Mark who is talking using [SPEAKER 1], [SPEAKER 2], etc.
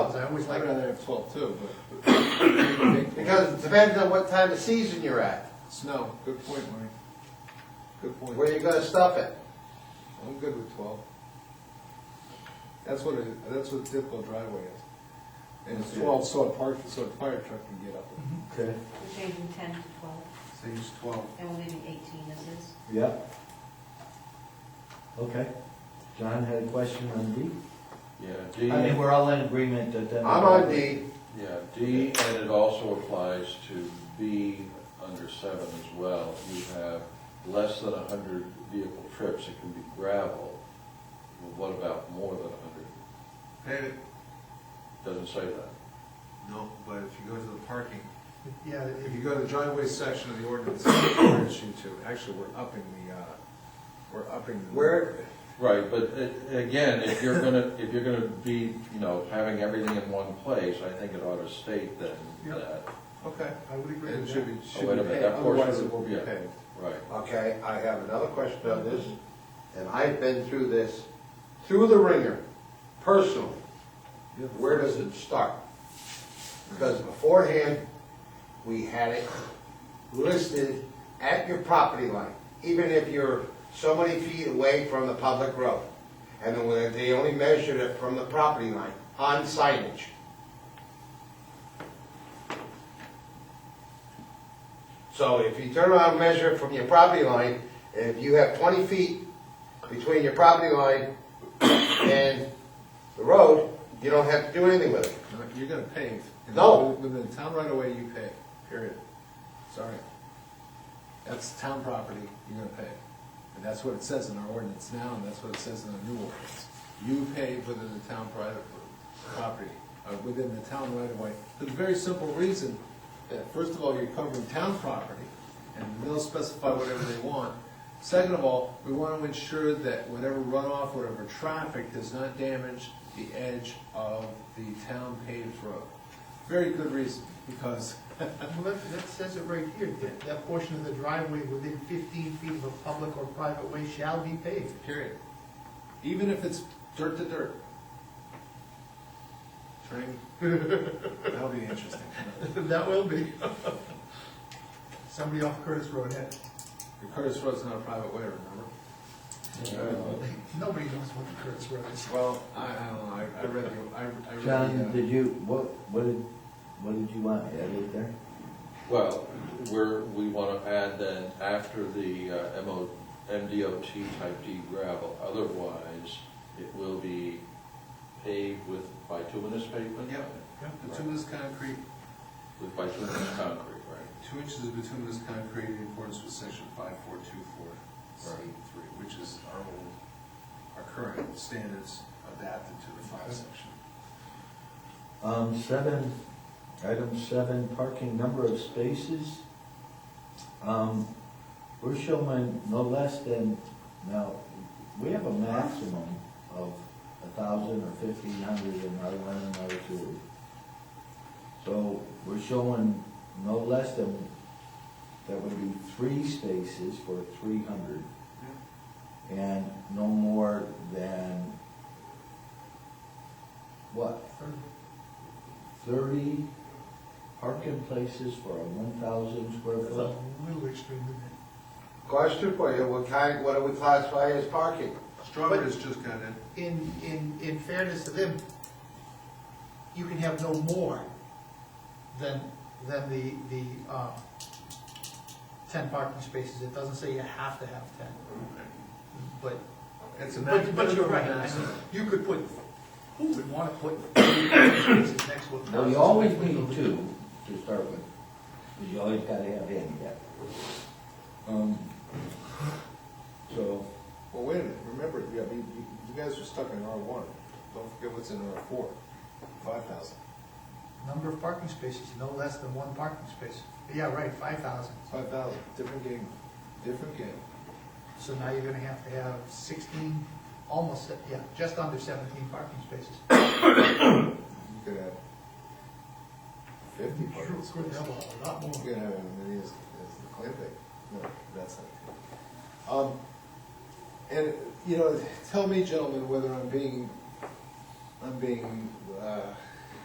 [SPEAKER 1] was
[SPEAKER 2] I'd
[SPEAKER 1] like,
[SPEAKER 2] rather have twelve too, but.
[SPEAKER 1] because it depends on what time of season you're at,
[SPEAKER 2] Snow, good point, Mike. Good point.
[SPEAKER 1] where you're gonna stuff it.
[SPEAKER 2] I'm good with twelve. That's what, it- that's what a typical driveway is. And it's twelve, so a park, so a fire truck can get up it.
[SPEAKER 3] Okay,
[SPEAKER 4] We're changing ten to twelve,
[SPEAKER 1] So use twelve.
[SPEAKER 4] and we're leaving eighteen as is.
[SPEAKER 3] yeah. Okay. John had a question on D?
[SPEAKER 5] Yeah, D,
[SPEAKER 3] I mean, we're all in agreement that that.
[SPEAKER 1] I'm on D,
[SPEAKER 5] yeah, D, and it also applies to B under seven as well. You have less than a hundred vehicle trips, it can be gravel. Well, What about more than a hundred?
[SPEAKER 6] Pave it,
[SPEAKER 5] Doesn't say that.
[SPEAKER 6] no, but if you go to the parking,
[SPEAKER 2] Yeah, if you go to the driveway section of the ordinance, it requires you to, actually, we're upping the, uh, we're upping. the-
[SPEAKER 1] Where-
[SPEAKER 5] Right, but uh, again, if you're gonna, if you're gonna be, you know, having everything in one place, I think it ought to state then
[SPEAKER 2] Yeah.
[SPEAKER 5] that,
[SPEAKER 2] Okay. I would agree
[SPEAKER 5] with
[SPEAKER 2] should
[SPEAKER 5] that.
[SPEAKER 2] be,
[SPEAKER 5] Oh,
[SPEAKER 2] should
[SPEAKER 5] wait a
[SPEAKER 2] be
[SPEAKER 5] minute,
[SPEAKER 2] paid,
[SPEAKER 5] that portion
[SPEAKER 2] otherwise it
[SPEAKER 5] would-
[SPEAKER 2] will be
[SPEAKER 5] yeah.
[SPEAKER 2] paid.
[SPEAKER 5] right.
[SPEAKER 1] okay, I have another question on this, and I've been through this, through the ringer, personally. Where does it start? Because beforehand, we had it listed at your property line, even if you're so many feet away from the public road. And then when they only measured it from the property line on signage. So if you turn around and measure it from your property line, if you have twenty feet between your property line and the road, you don't have to do anything with it.
[SPEAKER 2] No, You're gonna pave. And
[SPEAKER 1] No.
[SPEAKER 2] Within the town right away, you pave, period. Sorry. That's town property, you're gonna pave. And that's what it says in our ordinance now, and that's what it says in the new ordinance. You pave within the town private property, uh, within the town right away. For the very simple reason that, first of all, you're covering town property, and they'll specify whatever they want. Second of all, we want to ensure that whatever runoff, whatever traffic does not damage the edge of the town paved road. Very good reason, because,
[SPEAKER 7] Uh, Well, that, that says it right here, that, that portion of the driveway within fifteen feet of a public or private way shall be paved.
[SPEAKER 2] period. Even if it's dirt to dirt. Turning, that'll be interesting.
[SPEAKER 7] That will be. Somebody off Curtis Road eh? had,
[SPEAKER 2] The Curtis Road's not a private way, remember?
[SPEAKER 7] nobody knows what the Curtis Road is.
[SPEAKER 2] Well, I, I don't know, I, I read the, I, I read the. uh,
[SPEAKER 3] John, did you, what, what did, what did you want added there?
[SPEAKER 5] Well, we're, we want to add then after the uh, MO, MDOT type D gravel, otherwise it will be paved with bituminous pavement?
[SPEAKER 2] Yep. Bituminous concrete,
[SPEAKER 5] With bituminous concrete, right?
[SPEAKER 2] two inches of bituminous concrete in accordance with section five four two four C three, which is our old, our current standards adapted to the five section.
[SPEAKER 3] Um, seven, item seven, parking number of spaces. Um, we're showing no less than, now, we have a maximum of a thousand or fifteen hundred in R one and R two. So we're showing no less than, that would be three spaces for three hundred. And no more than, what, thirty parking places for a one thousand square
[SPEAKER 7] That's
[SPEAKER 3] foot.
[SPEAKER 7] a little extreme, isn't
[SPEAKER 1] Question for you, what kind, what do we classify as parking?
[SPEAKER 2] Strawberry's just got in,
[SPEAKER 7] it? In, in, in fairness to them, you can have no more than, than the, the, uh, ten parking spaces. It doesn't say you have to have ten, but
[SPEAKER 2] it's a.
[SPEAKER 7] But, but you're right, I mean, you could put, who would want to put places next to a
[SPEAKER 3] Well,
[SPEAKER 7] house?
[SPEAKER 3] you always need two to start with, 'cause you always gotta have handicap. Um, So,
[SPEAKER 2] Well, wait a minute, remember, yeah, you, you you guys are stuck in R one, don't forget what's in R four, five thousand.
[SPEAKER 7] Number of parking spaces, no less than one parking space. Yeah, right, five thousand.
[SPEAKER 2] Five thousand, different game, different game.
[SPEAKER 7] So now you're gonna have to have sixteen, almost, se- yeah, just under seventeen parking spaces.
[SPEAKER 2] You could have fifty
[SPEAKER 7] Sure,
[SPEAKER 2] parking
[SPEAKER 7] it's gonna
[SPEAKER 2] spaces.
[SPEAKER 7] have a lot more.
[SPEAKER 2] You could have as many as, as the clay thing. No, that's not. Um, and, you know, tell me, gentlemen, whether I'm being, I'm being, uh,